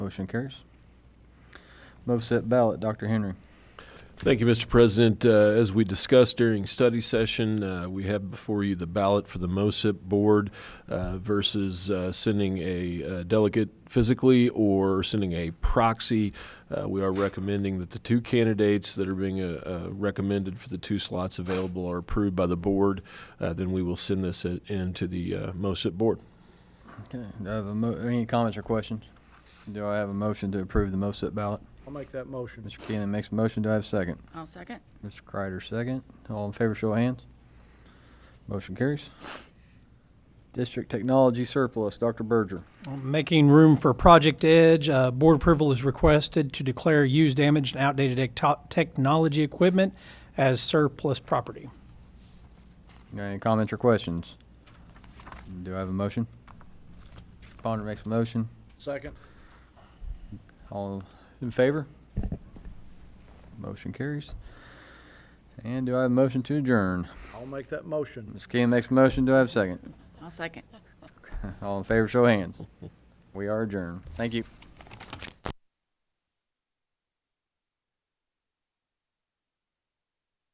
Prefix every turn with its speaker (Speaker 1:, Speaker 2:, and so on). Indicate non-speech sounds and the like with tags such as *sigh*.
Speaker 1: Motion carries. Move set ballot, Dr. Henry.
Speaker 2: Thank you, Mr. President. Uh, As we discussed during study session, uh, we have before you the ballot for the MOSIP board uh, versus uh, sending a uh, delegate physically or sending a proxy. Uh, We are recommending that the two candidates that are being uh, uh, recommended for the two slots available are approved by the board. Uh, Then we will send this in- into the uh, MOSIP board.
Speaker 1: Okay, do I have a mo- any comments or questions? Do I have a motion to approve the move set ballot?
Speaker 3: I'll make that motion.
Speaker 1: Mr. Keeling makes a motion. Do I have a second?
Speaker 4: I'll second.
Speaker 1: Mr. Kreider, second. All in favor, show of hands. Motion carries. District Technology Surplus, Dr. Berger.
Speaker 5: Making room for Project Edge, uh, board approval is requested to declare used, damaged, and outdated ecto- technology equipment as surplus property.
Speaker 1: Any comments or questions? Do I have a motion? Ponder makes a motion.
Speaker 3: Second.
Speaker 1: All in favor? Motion carries. And do I have a motion to adjourn?
Speaker 3: I'll make that motion.
Speaker 1: Mr. Keeling makes a motion. Do I have a second? *laughs*
Speaker 4: I'll second.
Speaker 1: All in favor, show of hands. We are adjourned. Thank you.